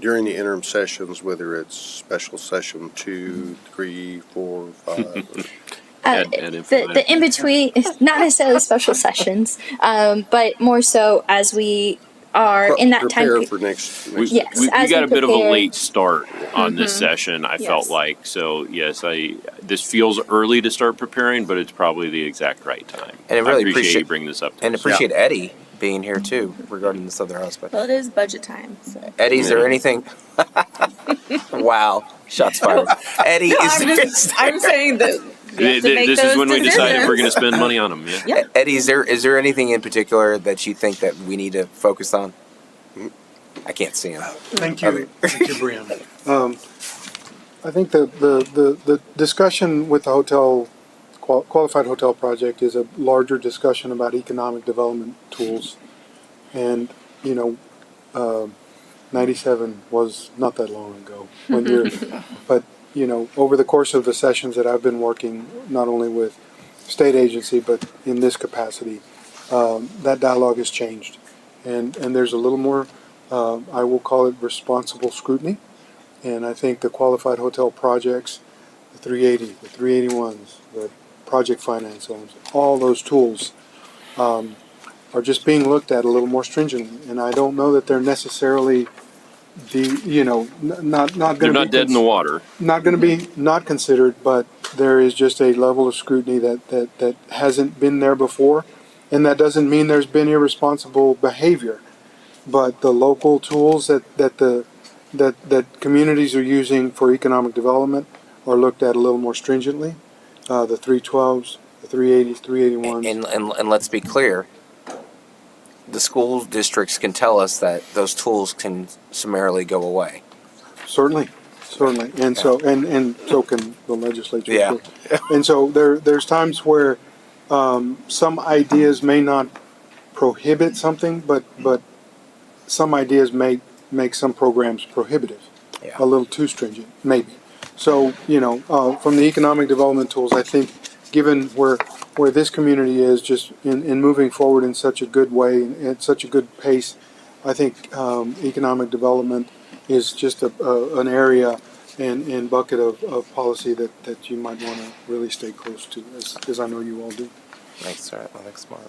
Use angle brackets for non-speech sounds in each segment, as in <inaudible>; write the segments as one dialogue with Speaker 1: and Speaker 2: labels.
Speaker 1: during the interim sessions, whether it's special session two, three, four, <laughs> five.
Speaker 2: Uh,
Speaker 3: Add- add
Speaker 2: the, the
Speaker 3: <laughs>
Speaker 2: in between, <laughs> not necessarily special sessions, um, but more so as we are in that time.
Speaker 1: Prepare
Speaker 2: pe-
Speaker 1: for next.
Speaker 3: We,
Speaker 1: next-
Speaker 2: Yes,
Speaker 3: we, we
Speaker 2: as
Speaker 3: got
Speaker 2: we
Speaker 3: a bit of a
Speaker 2: prepare- Mm-hmm.
Speaker 3: late start on this session. I felt
Speaker 2: Yes.
Speaker 3: like so. Yes, I this feels early to start preparing, but it's probably the exact right time.
Speaker 4: And I really
Speaker 3: appreciate,
Speaker 4: appreciate-
Speaker 3: you bringing this up. To
Speaker 4: And
Speaker 3: us.
Speaker 4: appreciate Eddie being here too regarding this other aspect.
Speaker 5: Well, it is budget time. So.
Speaker 4: Eddie, is
Speaker 5: <laughs>
Speaker 4: there anything? wow, shots fired. Eddie, is
Speaker 5: I'm
Speaker 4: there,
Speaker 5: just, I'm saying that. we have
Speaker 3: Th-
Speaker 5: to
Speaker 3: th-
Speaker 5: make
Speaker 3: this is
Speaker 5: those
Speaker 3: when we decided we're going to
Speaker 5: decisions.
Speaker 3: spend money on
Speaker 2: <laughs>
Speaker 3: them. Yeah.
Speaker 5: Yeah.
Speaker 4: <laughs> Eddie, is there is there anything in particular that you think that we need to focus on? I can't see him.
Speaker 6: Thank you, thank you, Brian.
Speaker 7: I think the, the, the, the discussion with the hotel, qual- qualified hotel project is a larger discussion about economic development tools. And, you know, um ninety-seven was not that long ago when you're, but, you know, over the course of the sessions that I've been working, not only with state agency, but in this capacity, um, that dialogue has changed. And, and there's a little more, uh, I will call it responsible scrutiny. And I think the qualified hotel projects, the 380, the 381s, the project finance loans, all those tools um, are just being looked at a little more stringently. And I don't know that they're necessarily the, you know, n- not, not
Speaker 3: They're
Speaker 7: going to be.
Speaker 3: not dead in
Speaker 7: cons-
Speaker 3: the water.
Speaker 7: Not going to be not considered, but there is just a level of scrutiny that, that, that hasn't been there before. And that doesn't mean there's been irresponsible behavior, but the local tools that, that the that that communities are using for economic development are looked at a little more stringently. Uh, the three twelves, the three eighties, three eighty ones.
Speaker 4: And, and and let's be clear. The school districts can tell us that those tools can summarily go away.
Speaker 7: Certainly, certainly, and so and and so can the legislature.
Speaker 4: Yeah.
Speaker 7: and so there there's times where um, some ideas may not prohibit something, but but some ideas may make some programs prohibitive,
Speaker 4: Yeah.
Speaker 7: a little too stringent, maybe. So you know, uh, from the economic development tools, I think given where where this community is just in, in moving forward in such a good way and at such a good pace, I think um, economic development is just a, a, an area and, and bucket of, of policy that, that you might want to really stay close to, as, as I know you all do.
Speaker 4: Thanks, all right. Well, thanks, Mark.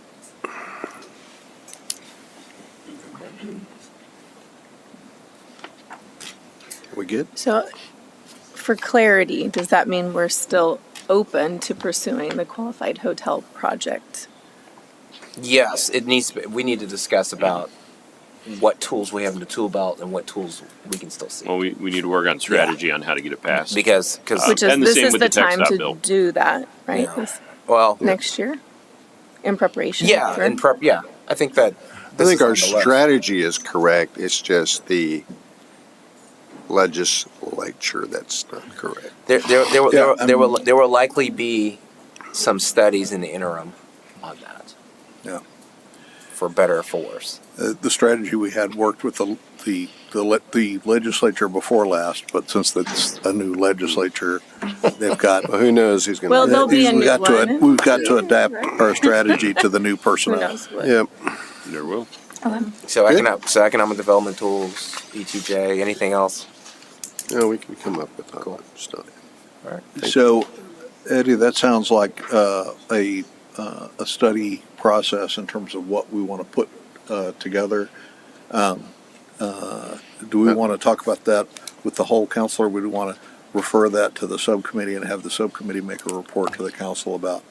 Speaker 1: We good?
Speaker 5: So, for clarity, does that mean we're still open to pursuing the qualified hotel project?
Speaker 4: Yes, it needs. To be, we need to discuss about what tools we have in the tool belt and what tools we can still see.
Speaker 3: Well, we, we need to work on strategy on how to get it passed.
Speaker 4: because, because,
Speaker 5: Which
Speaker 3: Uh,
Speaker 5: is
Speaker 3: and the
Speaker 5: this
Speaker 3: same
Speaker 5: is
Speaker 3: with
Speaker 5: the
Speaker 3: the tech
Speaker 5: time
Speaker 3: stop
Speaker 5: to
Speaker 3: bill.
Speaker 5: do that, right?
Speaker 4: Yeah.
Speaker 5: This
Speaker 4: well,
Speaker 5: next year, in preparation.
Speaker 4: yeah,
Speaker 5: for-
Speaker 4: in prep, yeah. I think that.
Speaker 1: I
Speaker 4: this
Speaker 1: think
Speaker 4: is
Speaker 1: our
Speaker 4: on the list.
Speaker 1: strategy is correct. It's just the legislature that's not correct.
Speaker 4: There, there, there, will-
Speaker 6: Yeah,
Speaker 4: there, will-
Speaker 6: I'm-
Speaker 4: there will, there will likely be some studies in the interim on that,
Speaker 6: Yeah.
Speaker 4: for better or for worse.
Speaker 6: Uh, The strategy we had worked with the, the, the le- the legislature before last, but since that's a new legislature, they've got.
Speaker 1: Well, who knows who's going to?
Speaker 5: Well, there'll <laughs> be a
Speaker 6: we've
Speaker 5: new
Speaker 6: got to ad-
Speaker 5: one.
Speaker 6: We've got to adapt our strategy to the new
Speaker 5: <laughs> Who
Speaker 6: personnel.
Speaker 5: knows what?
Speaker 1: Yeah,
Speaker 3: there will.
Speaker 2: Oh,
Speaker 4: So economic, so economic development tools, ETJ, anything else?
Speaker 1: no, we can come up with all that stuff.
Speaker 4: All right.
Speaker 6: So, Eddie, that sounds like uh, a, uh, a study process in terms of what we want to put uh, together. Um, uh, Do we want to talk about that with the whole council, or would we want to refer that to the subcommittee and have the subcommittee make a report to the council about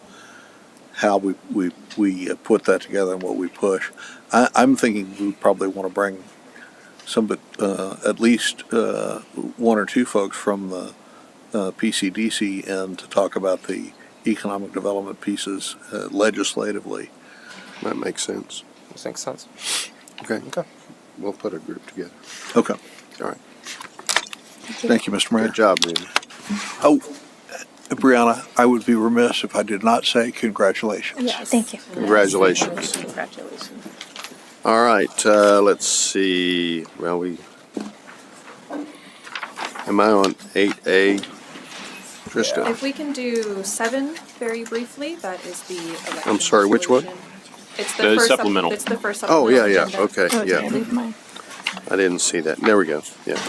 Speaker 6: how we, we, we uh, put that together and what we push? I, I'm thinking we probably want to bring some, but uh, at least uh, one or two folks from the uh, PCDC in to talk about the economic development pieces uh, legislatively.
Speaker 1: That makes sense.
Speaker 4: Does that make sense?
Speaker 1: Okay,
Speaker 4: Okay.
Speaker 1: we'll put a group together.
Speaker 6: Okay,
Speaker 1: All right.
Speaker 6: thank you, Mr. Mayor.
Speaker 1: Good job, Randy.
Speaker 6: Oh, Brianna, I would be remiss if I did not say congratulations.
Speaker 5: Yes.
Speaker 2: Thank you.
Speaker 1: Congratulations.
Speaker 5: Congratulations.
Speaker 1: All right, uh, let's see. Well, we. Am I on 8A? Trista?
Speaker 8: If we can do seven very briefly, that is the election.
Speaker 1: I'm sorry, which one?
Speaker 8: resolution. It's
Speaker 3: The
Speaker 8: the first. sup-
Speaker 3: supplemental.
Speaker 8: It's the first
Speaker 1: Oh,
Speaker 8: supplemental.
Speaker 1: yeah, yeah.
Speaker 8: agenda.
Speaker 1: Okay,
Speaker 5: Oh, did I
Speaker 1: yeah.
Speaker 5: leave mine?
Speaker 1: I didn't see that. There we go. Yeah.